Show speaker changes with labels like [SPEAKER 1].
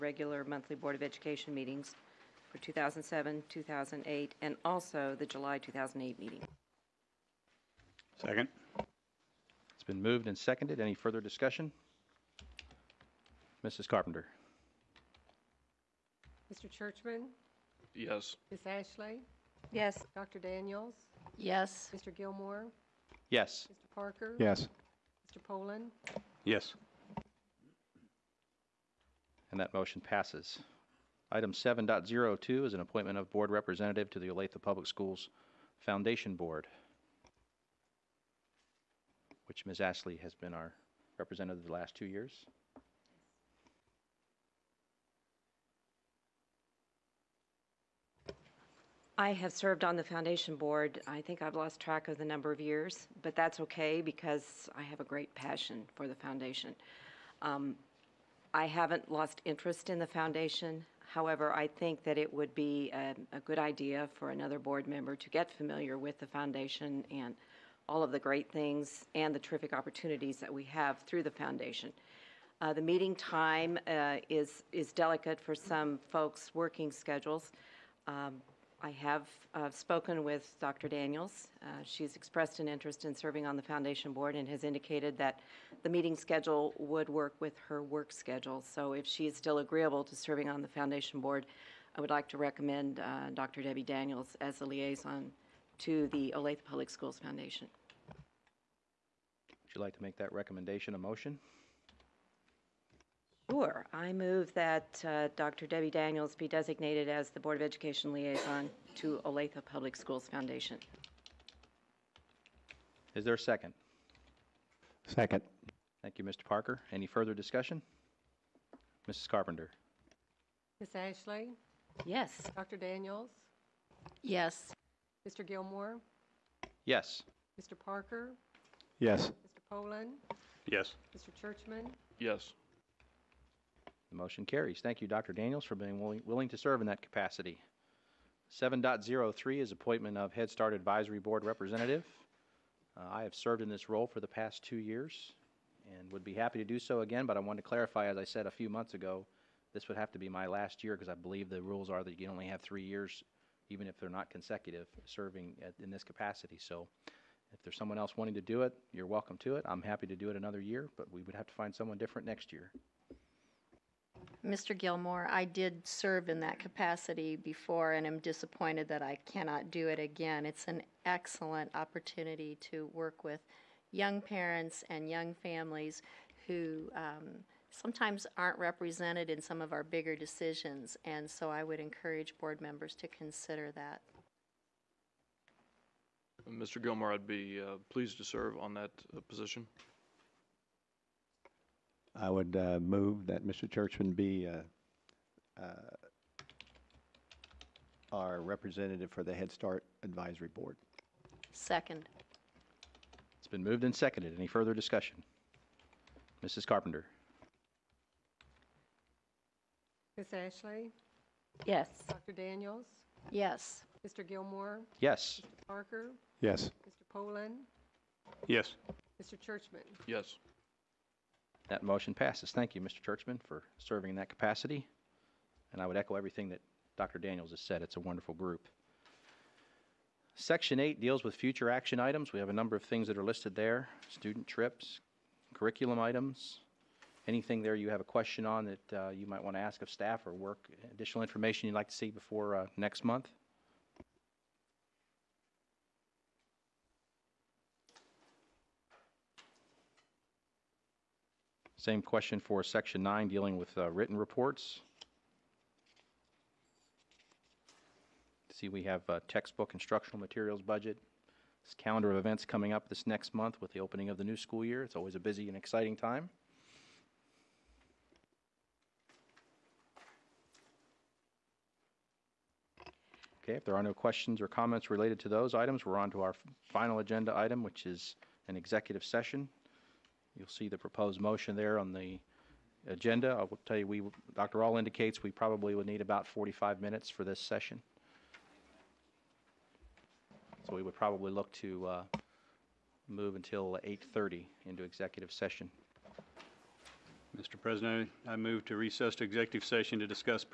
[SPEAKER 1] regular monthly Board of Education meetings for 2007, 2008, and also the July 2008 meeting.
[SPEAKER 2] Second.
[SPEAKER 3] It's been moved and seconded. Any further discussion? Mrs. Carpenter?
[SPEAKER 4] Mr. Churchman,
[SPEAKER 2] Yes.
[SPEAKER 4] Ms. Ashley,
[SPEAKER 1] Yes.
[SPEAKER 4] Dr. Daniels,
[SPEAKER 5] yes,
[SPEAKER 4] Mr. Gilmore,
[SPEAKER 3] Yes.
[SPEAKER 4] Mr. Parker.
[SPEAKER 2] Yes.
[SPEAKER 4] Mr. Poland,
[SPEAKER 2] Yes.
[SPEAKER 3] And that motion passes. Item 7.02 is an appointment of board representative to the Olathe Public Schools Foundation Board, which Ms. Ashley has been our representative the last two years.
[SPEAKER 1] I have served on the foundation board. I think I've lost track of the number of years, but that's okay because I have a great passion for the foundation. Um, I haven't lost interest in the foundation. However, I think that it would be a, a good idea for another board member to get familiar with the foundation and all of the great things and the terrific opportunities that we have through the foundation. Uh, The meeting time uh, is, is delicate for some folks' working schedules. Um, I have uh, spoken with Dr. Daniels. Uh, She's expressed an interest in serving on the foundation board and has indicated that the meeting schedule would work with her work schedule. So if she is still agreeable to serving on the foundation board, I would like to recommend uh, Dr. Debbie Daniels as the liaison to the Olathe Public Schools Foundation.
[SPEAKER 3] Would you like to make that recommendation a motion?
[SPEAKER 1] Sure. I move that uh, Dr. Debbie Daniels be designated as the Board of Education liaison to Olathe Public Schools Foundation.
[SPEAKER 3] Is there a second?
[SPEAKER 2] Second.
[SPEAKER 3] Thank you, Mr. Parker. Any further discussion? Mrs. Carpenter?
[SPEAKER 4] Ms. Ashley,
[SPEAKER 1] Yes.
[SPEAKER 4] Dr. Daniels,
[SPEAKER 5] yes.
[SPEAKER 4] Mr. Gilmore,
[SPEAKER 3] Yes.
[SPEAKER 4] Mr. Parker,
[SPEAKER 2] Yes.
[SPEAKER 4] Mr. Poland,
[SPEAKER 2] Yes.
[SPEAKER 4] Mr. Churchman,
[SPEAKER 2] Yes.
[SPEAKER 3] The motion carries. Thank you, Dr. Daniels, for being willing, willing to serve in that capacity. 7.03 is appointment of Head Start Advisory Board Representative. Uh, I have served in this role for the past two years and would be happy to do so again, but I wanted to clarify, as I said a few months ago, this would have to be my last year because I believe the rules are that you can only have three years, even if they're not consecutive, serving at, in this capacity. So if there's someone else wanting to do it, you're welcome to it. I'm happy to do it another year, but we would have to find someone different next year.
[SPEAKER 5] Mr. Gilmore, I did serve in that capacity before and am disappointed that I cannot do it again. It's an excellent opportunity to work with young parents and young families who um, sometimes aren't represented in some of our bigger decisions. And so I would encourage board members to consider that.
[SPEAKER 6] Mr. Gilmore, I'd be uh, pleased to serve on that uh, position.
[SPEAKER 7] I would uh, move that Mr. Churchman be uh, uh, our representative for the Head Start Advisory Board.
[SPEAKER 5] Second,
[SPEAKER 3] It's been moved and seconded. Any further discussion? Mrs. Carpenter?
[SPEAKER 4] Ms. Ashley,
[SPEAKER 1] Yes.
[SPEAKER 4] Dr. Daniels,
[SPEAKER 5] yes.
[SPEAKER 4] Mr. Gilmore,
[SPEAKER 3] Yes.
[SPEAKER 4] Mr. Parker,
[SPEAKER 7] Yes.
[SPEAKER 4] Mr. Poland,
[SPEAKER 2] Yes.
[SPEAKER 4] Mr. Churchman,
[SPEAKER 6] Yes.
[SPEAKER 3] That motion passes. Thank you, Mr. Churchman, for serving in that capacity. And I would echo everything that Dr. Daniels has said. It's a wonderful group. Section 8 deals with future action items. We have a number of things that are listed there student trips, curriculum items. Anything there you have a question on that uh, you might want to ask of staff or work additional information you'd like to see before uh, next month? Same question for Section 9, dealing with uh, written reports. See, we have uh, textbook instructional materials budget. This calendar of events coming up this next month with the opening of the new school year. It's always a busy and exciting time. Okay, if there are no questions or comments related to those items, we're on to our final agenda item, which is an executive session. You'll see the proposed motion there on the agenda. I will tell you, we, Dr. All indicates we probably would need about 45 minutes for this session. So we would probably look to uh, move until 8:30 into executive session.
[SPEAKER 2] Mr. President, I move to recess to executive session to discuss